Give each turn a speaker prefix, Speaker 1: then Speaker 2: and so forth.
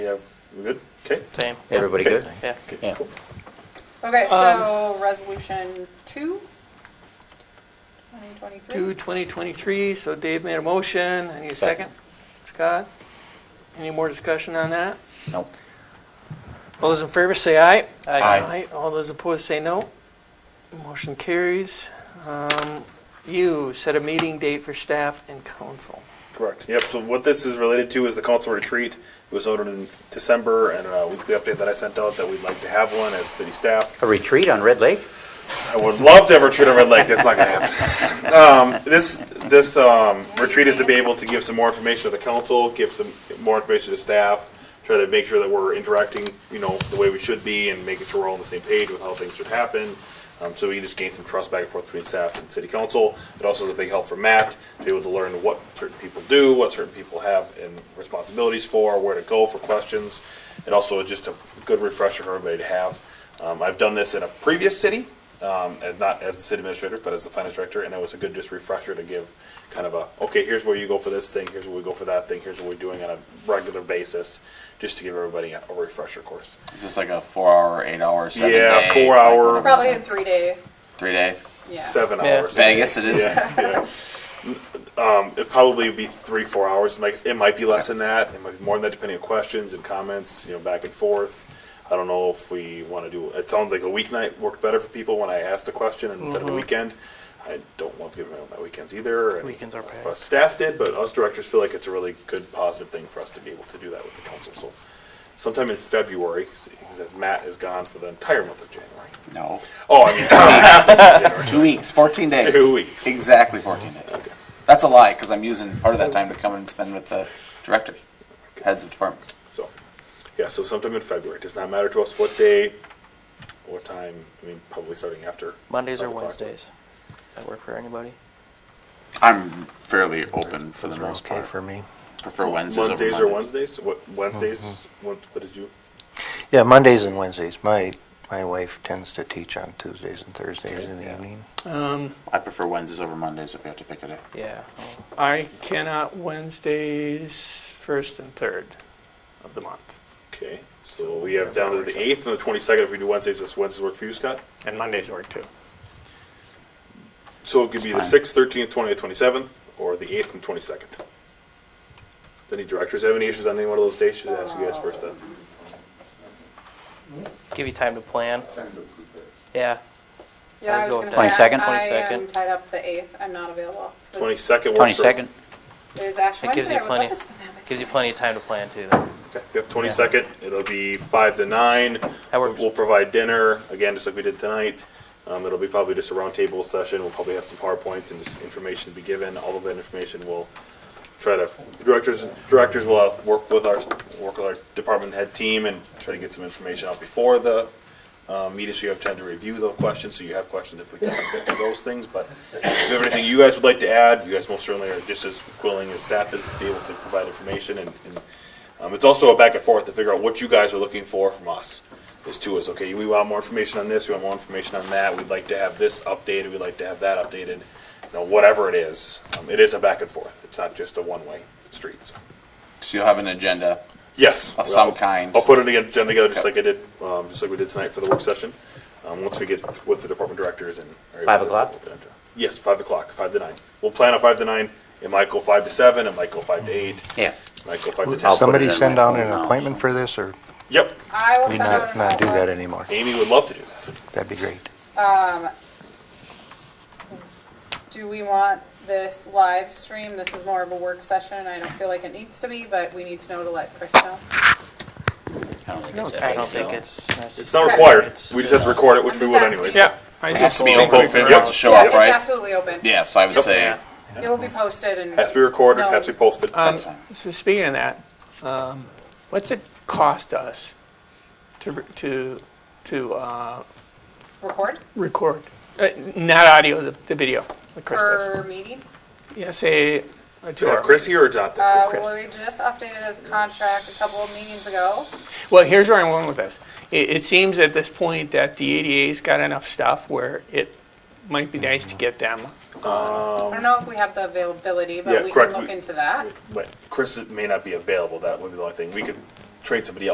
Speaker 1: We have, we good? Okay.
Speaker 2: Same.
Speaker 3: Everybody
Speaker 1: Okay.
Speaker 3: good?
Speaker 2: Yeah.
Speaker 3: Yeah.
Speaker 4: Okay,
Speaker 2: Um,
Speaker 4: so resolution two, 2023.
Speaker 2: Two, 2023, so Dave made a motion, I need a second. Scott, any more discussion on that?
Speaker 3: Nope.
Speaker 2: All those in favor say aye.
Speaker 3: Aye.
Speaker 2: All those opposed say no. Motion carries. Um, You set a meeting date for staff and council.
Speaker 1: Correct. Yep, so what this is related to is the council retreat. It was ordered in December and a weekly update that I sent out that we'd like to have one as city staff.
Speaker 3: A retreat on Red Lake?
Speaker 1: I would love to have a retreat on Red Lake. That's not gonna happen. Um, this, this, um, retreat is to be able to give some more information to the council, give some more information to staff, try to make sure that we're interacting, you know, the way we should be and making sure we're all on the same page with how things should happen. Um, so we can just gain some trust back and forth between staff and city council. It also is a big help for Matt to be able to learn what certain people do, what certain people have and responsibilities for, where to go for questions. And also just a good refresher for everybody to have. Um, I've done this in a previous city, um, and not as the city administrator, but as the finance director, and it was a good just refresher to give kind of a, okay, here's where you go for this thing, here's where we go for that thing, here's what we're doing on a regular basis, just to give everybody a, a refresher course.
Speaker 5: Is this like a four hour, eight hour, seven
Speaker 1: Yeah,
Speaker 5: day?
Speaker 1: four
Speaker 5: like
Speaker 1: hour.
Speaker 5: whatever?
Speaker 4: Probably a three day,
Speaker 5: Three day.
Speaker 4: yeah.
Speaker 1: Seven
Speaker 2: Yeah.
Speaker 1: hours.
Speaker 5: Vegas it is.
Speaker 1: Yeah, yeah. Um, it'd probably be three, four hours. It might, it might be less than that. It might be more than that, depending on questions and comments, you know, back and forth. I don't know if we want to do, it sounds like a weeknight worked better for people when I asked the question instead of the weekend. I don't want to give away my weekends either. and
Speaker 2: Weekends are packed.
Speaker 1: us Staff did, but us directors feel like it's a really good, positive thing for us to be able to do that with the council. So sometime in February, because Matt is gone for the entire month of January.
Speaker 5: No.
Speaker 1: Oh, I mean, January.
Speaker 5: Two weeks, 14 days.
Speaker 1: Two weeks.
Speaker 5: Exactly 14 days. That's a lie because I'm using part of that time to come and spend with the directors, heads of departments.
Speaker 1: So, yeah, so sometime in February. Does not matter to us what day, what time, I mean, probably starting after.
Speaker 6: Mondays or
Speaker 1: 5 o'clock.
Speaker 6: Wednesdays. Does that work for anybody?
Speaker 5: I'm fairly open for the most
Speaker 7: Okay
Speaker 5: part.
Speaker 7: for me.
Speaker 5: Prefer Wednesdays. over
Speaker 1: Mondays or
Speaker 5: Mondays.
Speaker 1: Wednesdays? What, Wednesdays, what what did you,
Speaker 7: Yeah, Mondays and Wednesdays. My, my wife tends to teach on Tuesdays and Thursdays in the evening.
Speaker 2: Um,
Speaker 5: I prefer Wednesdays over Mondays if we have to pick a day.
Speaker 6: Yeah.
Speaker 2: I cannot Wednesdays, first and third of the month.
Speaker 1: okay, so we have down to the eighth and the twenty-second, if we do Wednesdays, does Wednesdays work for you, Scott?
Speaker 2: And Mondays work too.
Speaker 1: So it could be the
Speaker 5: Fine.
Speaker 1: sixth, thirteenth, twentieth, twenty-seventh, or the eighth and twenty-second. Any directors have any issues on any one of those days? Should I ask you guys first then?
Speaker 6: Uh, Give you time to plan. Yeah.
Speaker 4: Yeah, I
Speaker 6: I'll
Speaker 4: was
Speaker 6: go
Speaker 4: gonna
Speaker 6: with
Speaker 4: say.
Speaker 3: that. 22nd?
Speaker 4: I- I am
Speaker 6: 22nd.
Speaker 4: tied up the eighth, I'm not available.
Speaker 1: Twenty-second works for.
Speaker 3: Twenty-second?
Speaker 4: Is Ash
Speaker 6: It gives
Speaker 4: Wednesday, I would
Speaker 6: you
Speaker 4: love
Speaker 6: plenty-
Speaker 4: to spend that with
Speaker 6: Gives you
Speaker 4: guys.
Speaker 6: plenty of time to plan too. Though.
Speaker 1: Okay, we have twenty-second, it'll be five to nine.
Speaker 6: That works.
Speaker 1: We'll provide dinner, again, just like we did tonight. Um, it'll be probably just a roundtable session, we'll probably have some PowerPoints and just information to be given, all of that information will try to, directors, directors will uh, work with our, work with our department head team and try to get some information out before the, uh, meeting, so you have time to review the questions, so you have questions if we can get to those things, but if you have anything you guys would like to add, you guys most certainly are just as willing as staff is to be able to provide information and, and um, it's also a back and forth to figure out what you guys are looking for from us. Is to us, okay, we want more information on this, we want more information on that, we'd like to have this updated, we'd like to have that updated. You know, whatever it is, um, it is a back and forth. It's not just a one-way street. so.
Speaker 5: So you'll have an agenda.
Speaker 1: Yes.
Speaker 5: Of some
Speaker 1: I'll-
Speaker 5: kind.
Speaker 1: I'll put it again, agenda together, just like I did, um, just like we did tonight for the work session. Um, once we get with the department directors and. are able
Speaker 3: Five
Speaker 1: to-
Speaker 3: o'clock?
Speaker 1: Yes, five o'clock, five to nine. We'll plan on five to nine. It might go five to seven, it might go five to eight,
Speaker 3: Yeah.
Speaker 1: it might go five to
Speaker 7: Would
Speaker 1: ten.
Speaker 3: I'll- put
Speaker 7: somebody
Speaker 3: it in
Speaker 7: send
Speaker 3: my
Speaker 7: out
Speaker 3: phone
Speaker 7: an
Speaker 3: now.
Speaker 7: appointment for this, or
Speaker 1: Yep,
Speaker 4: I will
Speaker 7: we
Speaker 4: send out
Speaker 7: not,
Speaker 4: an
Speaker 7: not do that
Speaker 4: outlook.
Speaker 7: anymore?
Speaker 1: Amy would love to do that.
Speaker 7: That'd be great.
Speaker 4: Do we want this live stream? This is more of a work session. I don't feel like it needs to be, but we need to know to let Chris know.
Speaker 5: I don't think it's
Speaker 6: I don't think it's necessary.
Speaker 1: It's not required.
Speaker 6: It's
Speaker 1: We just have to record it, which we
Speaker 4: I'm
Speaker 1: would
Speaker 4: just
Speaker 1: anyways.
Speaker 4: asking.
Speaker 2: Yeah. I
Speaker 5: It has
Speaker 2: just
Speaker 5: to be open if
Speaker 1: Yep.
Speaker 5: anyone wants to show
Speaker 4: Yeah,
Speaker 5: up, right?
Speaker 4: It's absolutely open.
Speaker 5: yeah, so I would say
Speaker 2: Yeah.
Speaker 4: It will be posted and.
Speaker 1: Has to be recorded,
Speaker 4: No.
Speaker 1: has to be posted.
Speaker 2: Um,
Speaker 5: fine.
Speaker 2: So speaking of that, um, what's it cost us to, to, to uh,
Speaker 4: Record
Speaker 2: record? Uh, Not audio, the- the video, like Chris does.
Speaker 4: per meeting.
Speaker 2: Yeah, say uh, a
Speaker 1: Do you have
Speaker 2: two-hour.
Speaker 1: Chris here or not?
Speaker 4: Uh,
Speaker 2: Chris.
Speaker 4: we just updated his contract a couple of meetings ago.
Speaker 2: Well, here's where I'm going with this. It, it seems at this point that the ADA's got enough stuff where it might be nice to get them.
Speaker 4: I don't know if we have the availability,
Speaker 1: Um, Yeah,
Speaker 4: but we can
Speaker 1: correct.
Speaker 4: look
Speaker 1: We-
Speaker 4: into that.
Speaker 1: But Chris may not be available. That would be the only thing. We could trade somebody else.